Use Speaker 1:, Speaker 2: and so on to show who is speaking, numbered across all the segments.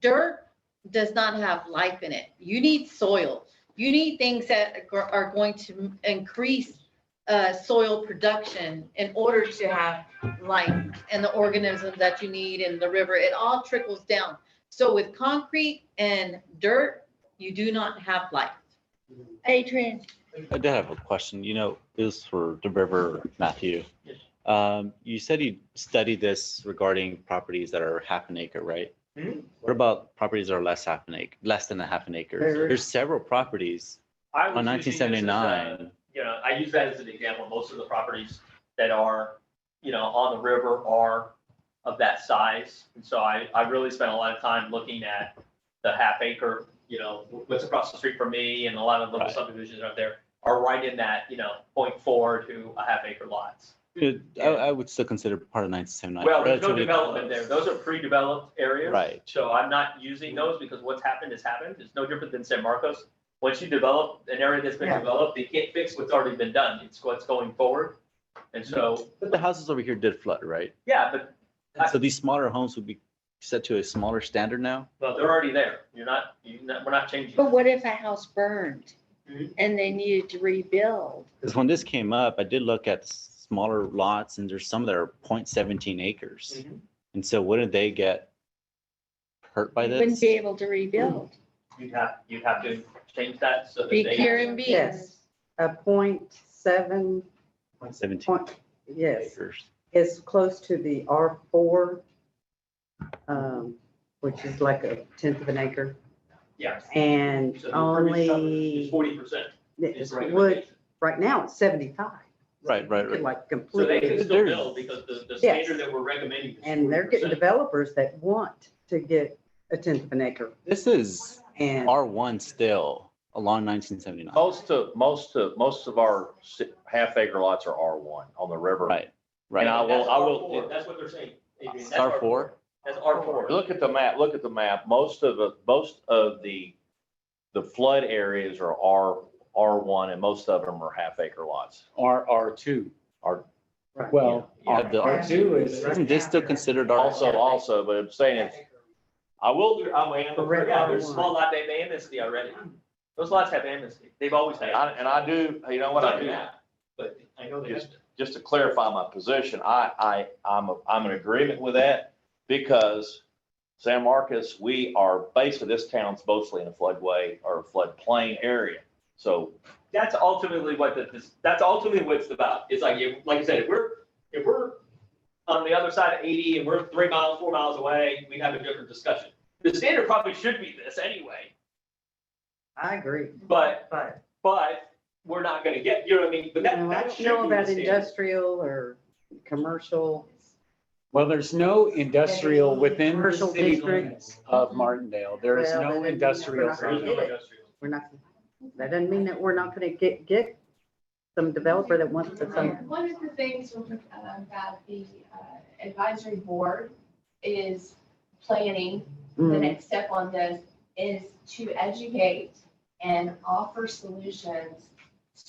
Speaker 1: dirt does not have life in it. You need soil. You need things that gr- are going to increase uh, soil production in order to have life and the organisms that you need in the river. It all trickles down. So with concrete and dirt, you do not have life.
Speaker 2: Adrian,
Speaker 3: I did have a question, you know, this is for the river, Matthew. Um, you said you studied this regarding properties that are half an acre, right?
Speaker 4: Hmm?
Speaker 3: What about properties that are less half an acre, less than a half an acre?
Speaker 4: There-
Speaker 3: There's several properties
Speaker 5: I
Speaker 3: on
Speaker 5: was using
Speaker 3: nineteen
Speaker 5: this as a-
Speaker 3: seventy-nine.
Speaker 5: You know, I use that as an example. Most of the properties that are, you know, on the river are of that size. And so I, I really spent a lot of time looking at the half acre, you know, what's across the street from me and a lot of little
Speaker 3: Right.
Speaker 5: subdivisions out there are right in that, you know, 0.4 to a half acre lots.
Speaker 3: I, I would still consider part of nineteen seventy-nine.
Speaker 5: Well, there's no development there. Those are pre-developed areas.
Speaker 3: Right.
Speaker 5: So I'm not using those because what's happened has happened. It's no different than San Marcos. Once you develop an area that's been
Speaker 4: Yeah.
Speaker 5: developed, they can't fix what's already been done. It's what's going forward. And
Speaker 6: Mm-hmm.
Speaker 5: so,
Speaker 3: But the houses over here did flood, right?
Speaker 5: yeah, but, I-
Speaker 3: So these smaller homes would be set to a smaller standard now?
Speaker 5: but they're already there. You're not, you're not, we're not changing.
Speaker 2: but what if a house burned
Speaker 5: Mhm.
Speaker 2: and they needed to rebuild?
Speaker 3: Because when this came up, I did look at s- smaller lots and there's some that are 0.17 acres.
Speaker 5: Mhm.
Speaker 3: And so wouldn't they get hurt by
Speaker 2: You Wouldn't
Speaker 3: this?
Speaker 2: be able to rebuild.
Speaker 5: You'd have, you'd have to change that so that
Speaker 1: Be
Speaker 5: they,
Speaker 1: pure and be.
Speaker 2: Yes.
Speaker 6: a point seven
Speaker 3: Seventeen
Speaker 6: point, yes,
Speaker 3: acres.
Speaker 6: it's close to the R four, um, which is like a tenth of an acre,
Speaker 5: yeah.
Speaker 6: and
Speaker 5: So the impervious coverage is
Speaker 6: only,
Speaker 5: Forty percent.
Speaker 6: it's wood, right now it's seventy-five.
Speaker 3: Right, right, right.
Speaker 6: Like
Speaker 5: So they
Speaker 6: completely,
Speaker 5: can still
Speaker 3: There's-
Speaker 5: build because the, the
Speaker 6: Yes.
Speaker 5: standard that we're recommending is
Speaker 6: and they're getting
Speaker 5: 40%.
Speaker 6: developers that want to get a tenth of an acre,
Speaker 3: This is
Speaker 6: and
Speaker 3: R one still along nineteen
Speaker 7: Oh.
Speaker 3: seventy-nine,
Speaker 8: Most of, most of, most of our si- half acre lots are R one on the river.
Speaker 3: right,
Speaker 8: And
Speaker 3: right.
Speaker 8: I will, I
Speaker 5: That's R4.
Speaker 8: will,
Speaker 5: That's what they're saying. Adrian. That's
Speaker 3: R four,
Speaker 5: That's R four.
Speaker 8: look at the map, look at the map. Most of, the- most of the, the flood areas are R, R one and most of them are half acre lots.
Speaker 7: R, R2.
Speaker 8: Are,
Speaker 7: Well,
Speaker 3: Yeah, the R-
Speaker 7: R2 is,
Speaker 3: isn't this still considered R?
Speaker 8: also, also, but I'm saying it's,
Speaker 5: I will do, I'm waiting,
Speaker 6: The red
Speaker 5: yeah, there's
Speaker 6: R1.
Speaker 5: small lot, they have amnesty already. Those lots have amnesty. They've always had.
Speaker 8: and I, and I do, you know what I do?
Speaker 5: But I know they have.
Speaker 8: Just, just to clarify my position, I, I, I'm, I'm in agreement with that because San Marcos, we are basically, this town's mostly in a floodway or floodplain area. So
Speaker 5: That's ultimately what the, this- that's ultimately what it's about. It's like, you- like I said, if we're, if we're on the other side of eighty and we're three miles, four miles away, we'd have a different discussion. The standard probably should be this anyway,
Speaker 6: I agree,
Speaker 5: but,
Speaker 6: but
Speaker 5: but we're not gonna get, you know what I mean? But
Speaker 6: you
Speaker 5: that,
Speaker 6: know, I
Speaker 5: that
Speaker 6: don't
Speaker 5: should
Speaker 6: know
Speaker 5: be the
Speaker 6: about
Speaker 5: standard.
Speaker 6: industrial or commercial,
Speaker 7: well, there's no industrial within the
Speaker 6: Commercial
Speaker 7: city
Speaker 6: district.
Speaker 7: limits of Martindale. There is
Speaker 6: Well, then
Speaker 7: no
Speaker 6: we're not
Speaker 7: industrial.
Speaker 6: gonna
Speaker 7: zone.
Speaker 6: get it. we're not, that doesn't mean that we're not gonna get, get some developer that wants to some
Speaker 9: One of the things um, that the uh, advisory board is planning, the
Speaker 6: Mm,
Speaker 9: next step on this, is to educate and offer solutions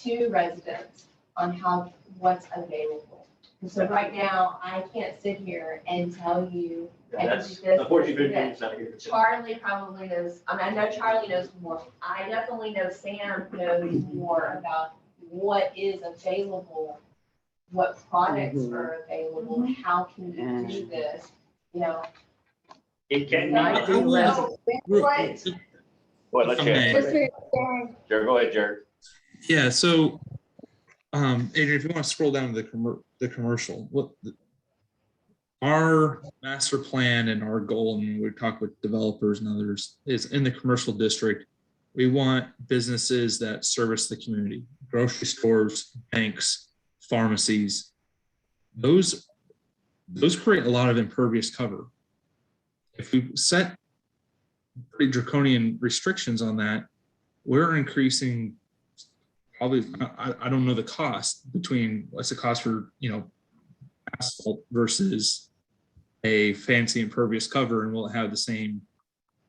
Speaker 9: to residents on how, what's available. And So right now, I can't sit here and tell you,
Speaker 5: Yeah, That's,
Speaker 9: This-
Speaker 5: unfortunately, it's not here.
Speaker 9: Charlie probably knows, I mean, I know Charlie knows more. I definitely know Sam knows more about what is available, what products are available, how can you do this, you know?
Speaker 5: It
Speaker 9: So,
Speaker 5: can
Speaker 6: Might be
Speaker 5: be.
Speaker 6: less.
Speaker 9: no, what-
Speaker 8: Well, let's hear it.
Speaker 9: Just to expand,
Speaker 8: Jared, go ahead, Jared.
Speaker 10: Yeah, so, um, Adrian, if you want to scroll down to the commer- the commercial, what the- our master plan and our goal, and we talk with developers and others, is in the commercial district. We want businesses that service the community, grocery stores, banks, pharmacies. Those, those create a lot of impervious cover. If we set pretty draconian restrictions on that, we're increasing probably, I, I- I don't know the cost between what's the cost for, you know, asphalt versus a fancy impervious cover and will it have the same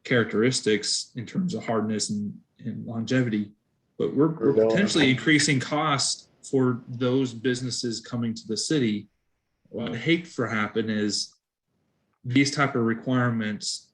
Speaker 10: characteristics in terms of hardness and, and longevity? But we're, we're potentially increasing costs for those businesses coming to the city. What I hate for happen is these type of requirements